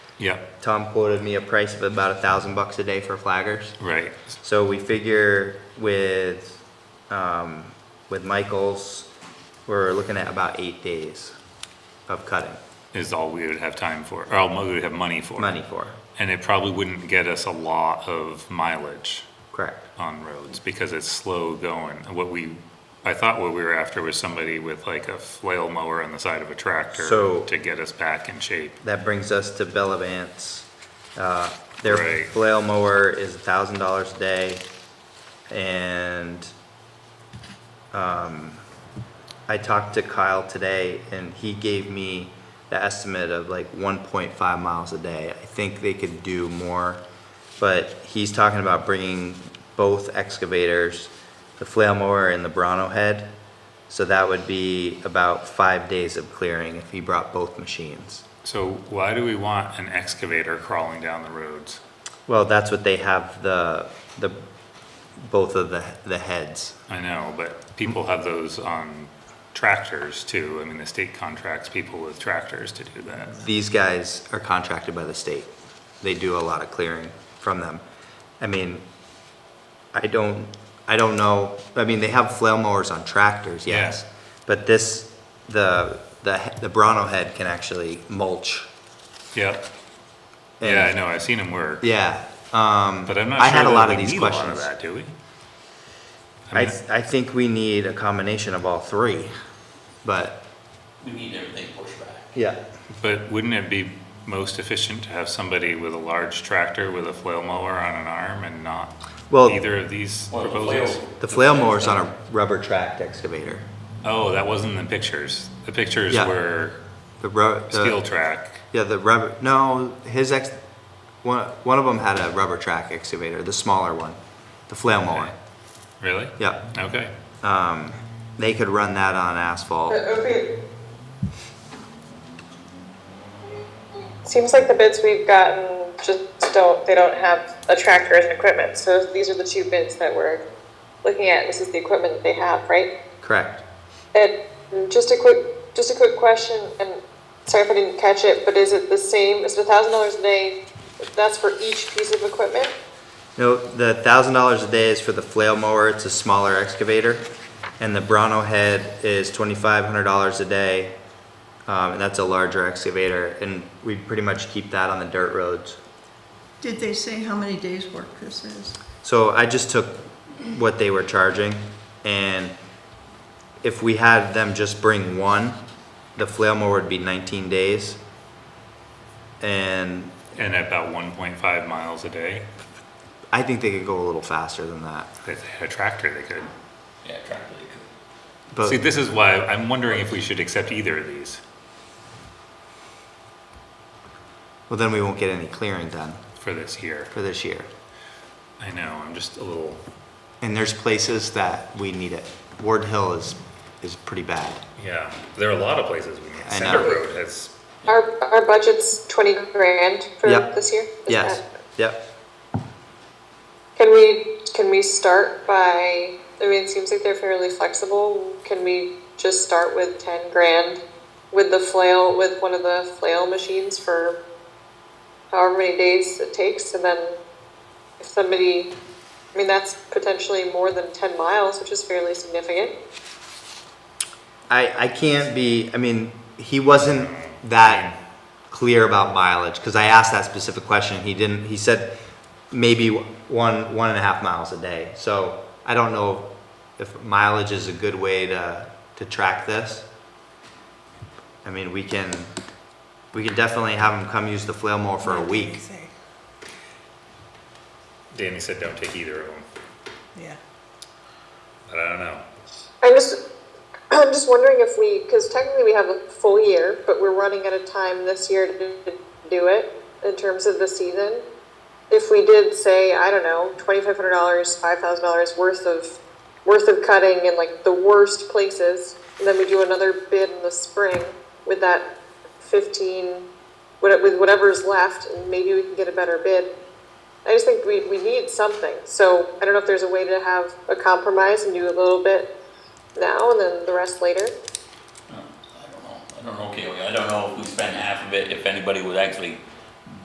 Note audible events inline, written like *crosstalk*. Yeah, Tom quoted me a price of about a thousand bucks a day for flaggers. right. So we figure with, um, with Michaels, we're looking at about eight days of cutting, Is all we would have time for, or all we would have money for. money for, And it probably wouldn't get us a lot of mileage correct? on roads because it's slow going. What we, I thought what we were after was somebody with like a flail mower on the side of a tractor So- to get us back in shape. That brings us to Bellavance. Uh, Their Right. flail mower is a thousand dollars a day, and um, I talked to Kyle today, and he gave me the estimate of like one point five miles a day. I think they could do more, but he's talking about bringing both excavators, the flail mower and the Bronto head. So that would be about five days of clearing if he brought both machines. So why do we want an excavator crawling down the roads? Well, that's what they have the, the, both of the, the heads. I know, but people have those on tractors too. I mean, the state contracts people with tractors to do that. These guys are contracted by the state. They do a lot of clearing from them. I mean, I don't, I don't know, I mean, they have flail mowers on tractors, yes. Yeah. But this, the, the, he- the Bronto head can actually mulch. Yep. and- Yeah, I know, I've seen them work, Yeah, um, but I'm I not had sure a lot that of we these need a lot of questions. that, do we? I, I mean, I think we need a combination of all three, but, We need everything pushed back. yeah. but wouldn't it be most efficient to have somebody with a large tractor with a flail mower on an arm and not Well- either of these Well, the proposals? flail- The flail mower's on a rubber tracked excavator. Oh, that wasn't in the pictures. The pictures Yeah. were The rubber. steel track. Yeah, the rubber, no, his ex, one, one of them had a rubber track excavator, the smaller one, the flail mower. Okay. Really? Yeah, Okay. um, they could run that on But asphalt. opiate. Seems like the bids we've gotten just don't, they don't have a tractor as an equipment, so these are the two bids that we're looking at, this is the equipment that they have, right? Correct. And just a quick, just a quick question, and sorry if I didn't catch it, but is it the same, is it a thousand dollars a day, that's for each piece of equipment? No, the thousand dollars a day is for the flail mower, it's a smaller excavator. And the Bronto head is twenty-five hundred dollars a day, um, and that's a larger excavator, and we pretty much keep that on the dirt roads. Did they say how many days' work this is? So I just took what they were charging and if we had them just bring one, the flail mower would be nineteen days. And And at about one point five miles a day, I think they could go a little faster than that, if they had a tractor, they could. Yeah, tractor they could. See, but this is why I'm wondering if we should accept either of these. well, then we won't get any clearing done for this year. for this year. I know, I'm just a little, And there's places that we need it. Ward Hill is, is pretty bad. yeah, there are a lot of places we need. I Center know. Road has, Our, our budget's twenty grand for Yep. this year? Is Yes, that- yep. Can we, can we start by, I mean, it seems like they're fairly flexible. Can we just start with ten grand with the flail, with one of the flail machines for however many days it takes? And then if somebody, I mean, that's potentially more than ten miles, which is fairly significant. I, I can't be, I mean, he wasn't that clear about mileage, because I asked that specific question, he didn't, he said maybe one, one and a half miles a day, so I don't know if mileage is a good way to, to track this. I mean, we can, we can definitely have him come use the flail mower for a week. Danny said don't take either of them, Yeah. but I don't know. I'm just, *clears throat* I'm just wondering if we, because technically we have a full year, but we're running out of time this year to do it in terms of the season. If we did say, I don't know, twenty-five hundred dollars, five thousand dollars worth of, worth of cutting in like the worst places, and then we do another bid in the spring with that fifteen, what- with whatever's left, and maybe we can get a better bid. I just think we, we need something. So I don't know if there's a way to have a compromise and do a little bit now and then the rest later. No, I don't know, I don't know, okay, I don't know if we spend half of it, if anybody would actually